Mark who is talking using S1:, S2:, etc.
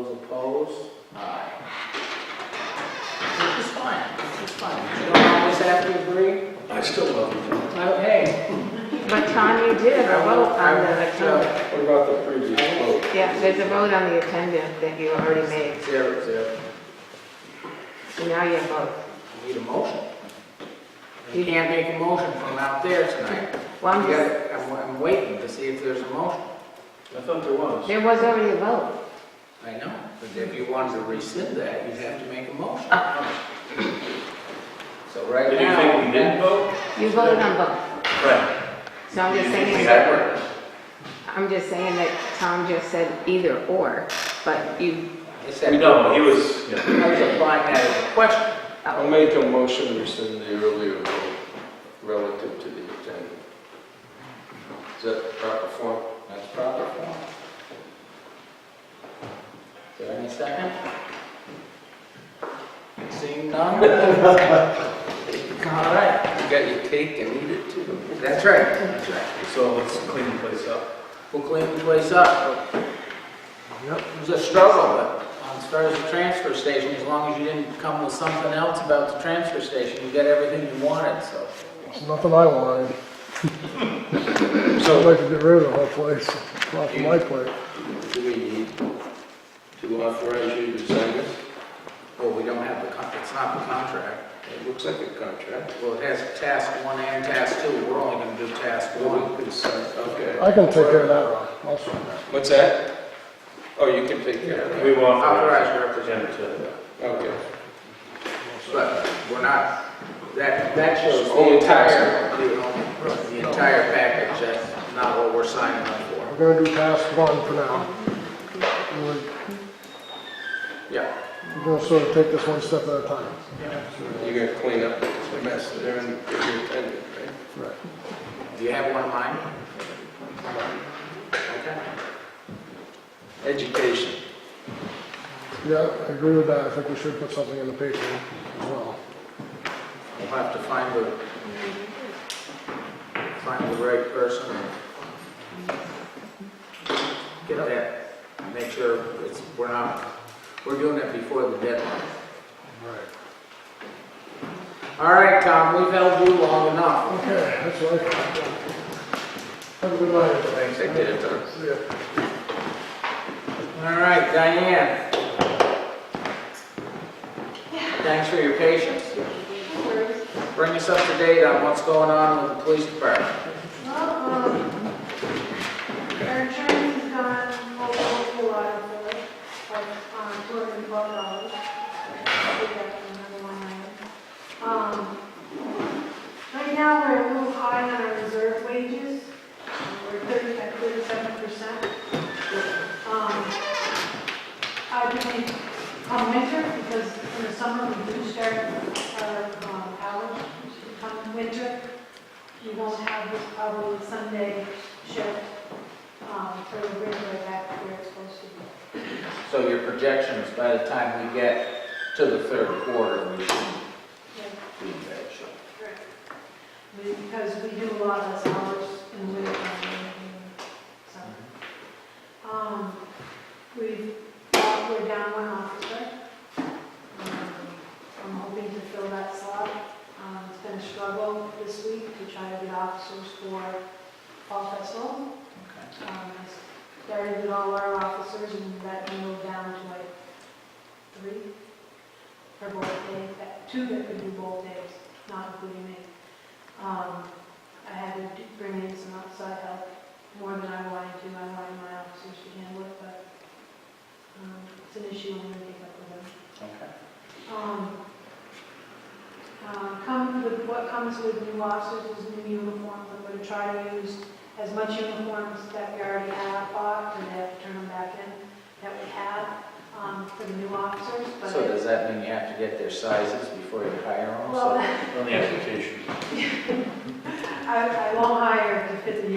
S1: Opposed? Aye.
S2: It's fun, it's fun.
S1: You don't always have to agree.
S3: I still love you.
S1: Okay.
S4: But Tom, you did a vote on the attendance.
S3: What about the previous vote?
S4: um, Yeah, there's a vote on the attendance that you already made,
S1: Zero, zero.
S4: so now you vote.
S1: Need a motion? You can't make a motion from out there tonight.
S4: Well, I'm
S1: You
S4: just,
S1: gotta- I'm, I'm waiting to see if there's a motion.
S3: I thought there was.
S4: there was already a vote.
S1: I know, but if you wanted to rescind that, you'd have to make a motion. So right
S3: Did you think we didn't
S1: now,
S3: vote?
S4: You voted on both.
S3: Right.
S4: So I'm just saying, that- I'm just saying that Tom just said either or, but you,
S1: it's that, I
S3: No, he was, yeah.
S1: was applying that as a question.
S5: I'll make a motion to rescind the earlier vote relative to the agenda. Is that proper form?
S1: That's proper form. Is there any second? Seeing none? All right. You got your cake and eat it too. That's right, that's right.
S3: So let's clean the place up.
S1: We'll clean the place up. Yep. It was a struggle, but as far as the transfer station, as long as you didn't come with something else about the transfer station, you got everything you wanted, so.
S6: Nothing I wanted. I'd like to get rid of the whole place, off of my plate.
S5: Do we need to authorize you to sign this?
S1: Well, we don't have the, con- it's not the contract.
S5: It looks like a contract.
S1: Well, it has task one and task two, we're only gonna do task
S5: Well,
S1: one.
S5: we can sign, okay.
S6: I can take care of that, I'll sign that.
S5: What's that? Oh, you can take care of
S3: We
S5: it.
S3: want.
S1: Authorized representative,
S5: Okay.
S1: but we're not, that, that shows the
S5: Only task
S1: entire, you know, the entire package, that's not what we're signing up for.
S6: We're gonna do task one for now. We're
S1: Yeah.
S6: gonna sort of take this one step at a time.
S5: You're gonna clean up the mess there and get your attendant, right?
S1: Do you have one in mind? Okay.
S5: Education.
S6: Yeah, I agree with that, I think we should put something in the paper as well.
S1: We'll have to find the, find the right person. Get that, make sure it's, we're not, we're doing it before the deadline.
S6: Right.
S1: All right, Tom, we've held you long enough.
S6: Okay, that's what I. Have a good night.
S1: Thanks,
S5: I did it, Tom.
S6: See ya.
S1: All right, Diane. Thanks for your patience. Bring us up to date on what's going on with the police department.
S7: Well, um, our insurance has gone over a whole lot of it, like, um, two hundred and twelve dollars. Um, right now, we're a little high on our reserve wages, we're thirty, at thirty-seven percent. Um, I do think, come winter, because in the summer, we do start our, um, hours, come winter, you won't have this probably Sunday shift um, for the regular back where it's supposed to be.
S1: So your projections, by the time we get to the third quarter, we should
S7: Yeah,
S1: be in bad shape.
S7: correct. I mean, Because we do a lot of hours in the winter time and in summer. Um, We, we're down one officer. Um, I'm hoping to fill that slot. Um, It's been a struggle this week to try to get officers for Fall Festival. Um, I Started with all our officers and that moved down to like three for both days, that- two that could do both days, not including me. Um, I had to do- bring in some outside help, more than I wanted to, I wanted my officers to handle it, but um, it's an issue when we pick up with them
S1: Okay.
S7: um, uh, come with, what comes with new officers is new uniforms, I'm gonna try to use as much uniforms that we already have bought, and have to turn them back in, that we have, um, for the new officers, but.
S1: So does that mean you have to get their sizes before you hire them?
S7: Well,
S3: On the application.
S7: I, I won't hire to fit the Um, um,